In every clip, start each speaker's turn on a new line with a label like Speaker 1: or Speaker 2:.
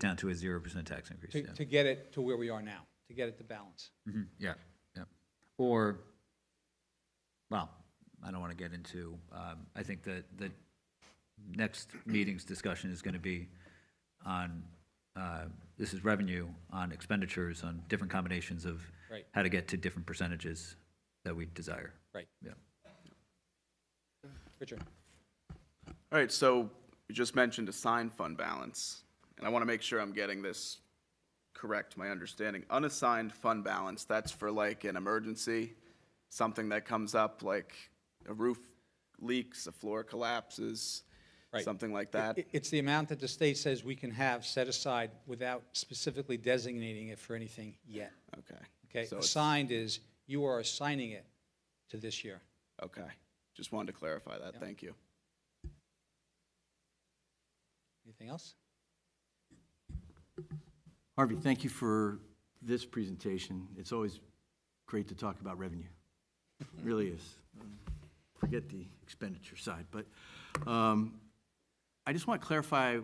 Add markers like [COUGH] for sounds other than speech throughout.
Speaker 1: down to a zero percent tax increase,
Speaker 2: to,
Speaker 1: yeah.
Speaker 2: to get it to where we are now, to get it to balance.
Speaker 1: Mhm, Yeah, yeah. Or, well, I don't want to get into, um, I think the, the next meeting's discussion is going to be on, uh, this is revenue on expenditures, on different combinations of
Speaker 2: Right.
Speaker 1: how to get to different percentages that we desire.
Speaker 2: Right.
Speaker 1: Yeah.
Speaker 2: Richard?
Speaker 3: All right, so you just mentioned assigned fund balance, and I want to make sure I'm getting this correct, my understanding. Unassigned fund balance, that's for like an emergency, something that comes up, like a roof leaks, a floor collapses,
Speaker 2: Right.
Speaker 3: something like that?
Speaker 2: It- It's the amount that the state says we can have set aside without specifically designating it for anything yet.
Speaker 3: Okay.
Speaker 2: Okay?
Speaker 3: So it's-
Speaker 2: Assigned is, you are assigning it to this year.
Speaker 3: Okay, just wanted to clarify that, thank you.
Speaker 2: Anything else?
Speaker 4: Harvey, thank you for this presentation. It's always great to talk about revenue. It Really is. Forget the expenditure side, but um, I just want to clarify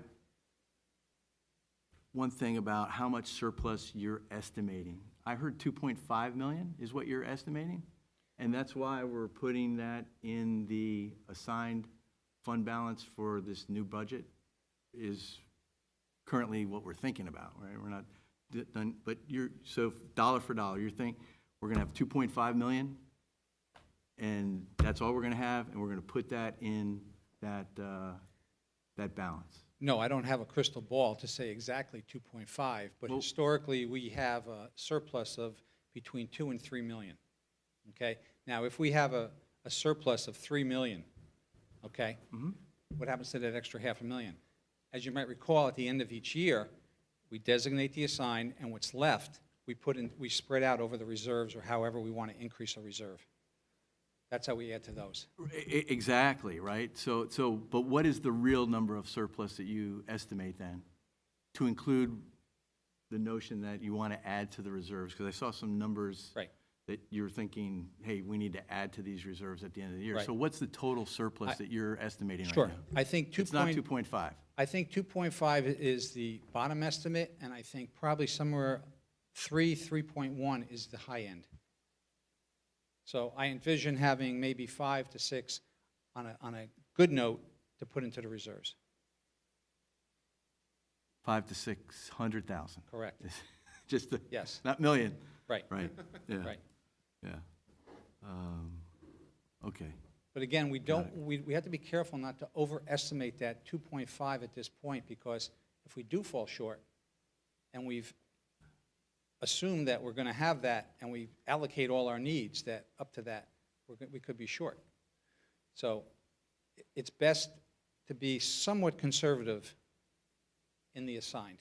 Speaker 4: one thing about how much surplus you're estimating. I heard 2.5 million is what you're estimating, and that's why we're putting that in the assigned fund balance for this new budget, is currently what we're thinking about, right? We're not d- done, but you're, so dollar for dollar, you're thinking, we're gonna have two point five million, and that's all we're gonna have, and we're gonna put that in that, uh, that balance.
Speaker 2: No, I don't have a crystal ball to say exactly 2.5, but
Speaker 4: Well-
Speaker 2: historically, we have a surplus of between 2 and 3 million. Okay? Now, if we have a, a surplus of 3 million, okay?
Speaker 4: Mm-hmm.
Speaker 2: What happens to that extra half a million? As you might recall, at the end of each year, we designate the assigned, and what's left, we put in, we spread out over the reserves or however we want to increase our reserve. That's how we add to those.
Speaker 4: E- e- Exactly, right? So, so, but what is the real number of surplus that you estimate then? To include the notion that you wanna add to the reserves, because I saw some numbers.
Speaker 2: Right.
Speaker 4: that you're thinking, hey, we need to add to these reserves at the end of the year.
Speaker 2: Right.
Speaker 4: So what's the total surplus that you're estimating right now?
Speaker 2: Sure. I think 2.
Speaker 4: It's not 2.5.
Speaker 2: I think 2.5 is the bottom estimate, and I think probably somewhere 3, 3.1 is the high end. So I envision having maybe 5 to 6 on a, on a good note to put into the reserves.
Speaker 4: Five to 600,000.
Speaker 2: Correct.
Speaker 4: [LAUGHS] Just the.
Speaker 2: Yes.
Speaker 4: Not million.
Speaker 2: Right, [LAUGHS]
Speaker 4: Right, yeah.
Speaker 2: right.
Speaker 4: Yeah. Um, Okay.
Speaker 2: But again, we don't, we, we have to be careful not to overestimate that 2.5 at this point, because if we do fall short, and we've assumed that we're going to have that, and we allocate all our needs that, up to that, we're, go- we could be short. So i- it's best to be somewhat conservative in the assigned,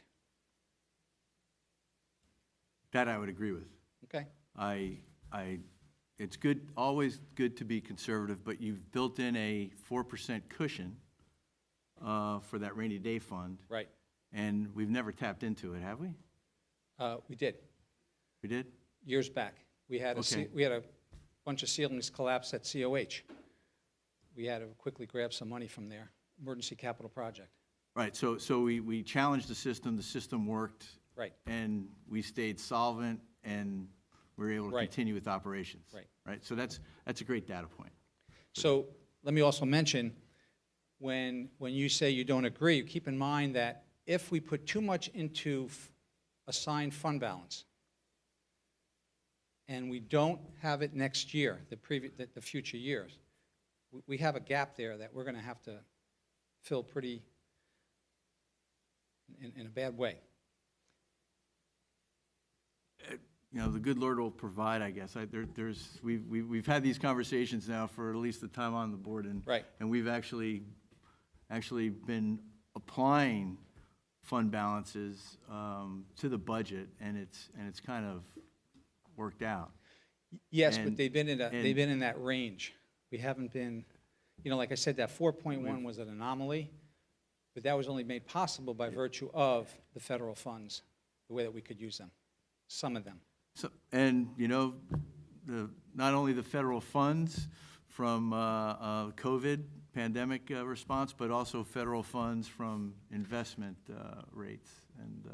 Speaker 4: That I would agree with.
Speaker 2: okay?
Speaker 4: I, I, it's good, always good to be conservative, but you've built in a 4% cushion uh, for that rainy day fund.
Speaker 2: Right.
Speaker 4: And we've never tapped into it, have we?
Speaker 2: Uh, We did.
Speaker 4: We did?
Speaker 2: years back. We had a, ce-
Speaker 4: Okay.
Speaker 2: we had a bunch of ceilings collapse at COH. We had to quickly grab some money from there, emergency capital project.
Speaker 4: Right, so, so we, we challenged the system, the system worked.
Speaker 2: Right.
Speaker 4: And we stayed solvent and we were able to
Speaker 2: Right.
Speaker 4: continue with operations.
Speaker 2: Right.
Speaker 4: Right, so that's, that's a great data point.
Speaker 2: So let me also mention, when, when you say you don't agree, keep in mind that if we put too much into f- assigned fund balance, and we don't have it next year, the previous, the, the future years, we, we have a gap there that we're gonna have to fill pretty, in, in a bad way.
Speaker 4: You know, the good Lord will provide, I guess. I, there, there's, we've, we've, we've had these conversations now for at least the time on the board and.
Speaker 2: Right.
Speaker 4: And we've actually, actually been applying fund balances, um, to the budget and it's, and it's kind of worked out.
Speaker 2: Yes, but
Speaker 4: And-
Speaker 2: they've been in that, they've
Speaker 4: and-
Speaker 2: been in that range. We haven't been, you know, like I said, that four point one was an anomaly, but that was only made possible by virtue of the federal funds, the way that we could use them, some of them.
Speaker 4: So, and, you know, the, not only the federal funds from uh, uh, COVID pandemic uh, response, but also federal funds from investment uh, rates and uh,